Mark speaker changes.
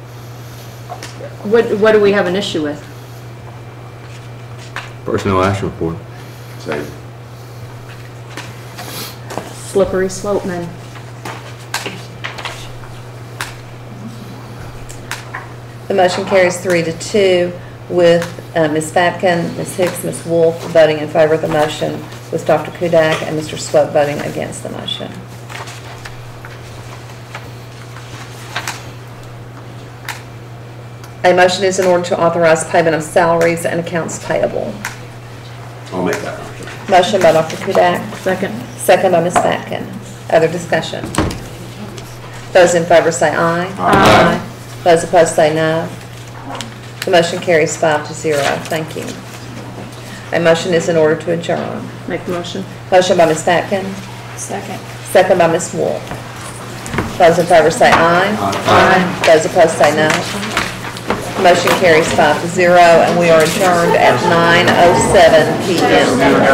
Speaker 1: What, what do we have an issue with?
Speaker 2: Personnel action report.
Speaker 3: Same.
Speaker 1: Slippery slope, man.
Speaker 4: The motion carries three to two with uh, Ms. Fatkin, Ms. Hicks, Ms. Wolf voting in favor of the motion, with Dr. Kudak and Mr. Swett voting against the motion. A motion is in order to authorize payment of salaries and accounts payable.
Speaker 3: I'll make that motion.
Speaker 4: Motion by Dr. Kudak,
Speaker 1: Second.
Speaker 4: second by Ms. Fatkin. Other discussion? Those in favor say aye.
Speaker 3: Aye.
Speaker 4: Those opposed say no. The motion carries five to zero. Thank you. A motion is in order to adjourn.
Speaker 1: Make the motion.
Speaker 4: Motion by Ms. Patkin. Second. Second by Ms. Wolf. Those in favor say aye. Aye. Those opposed say no. oh Motion carries five to zero, and we are adjourned at 9:07 PM.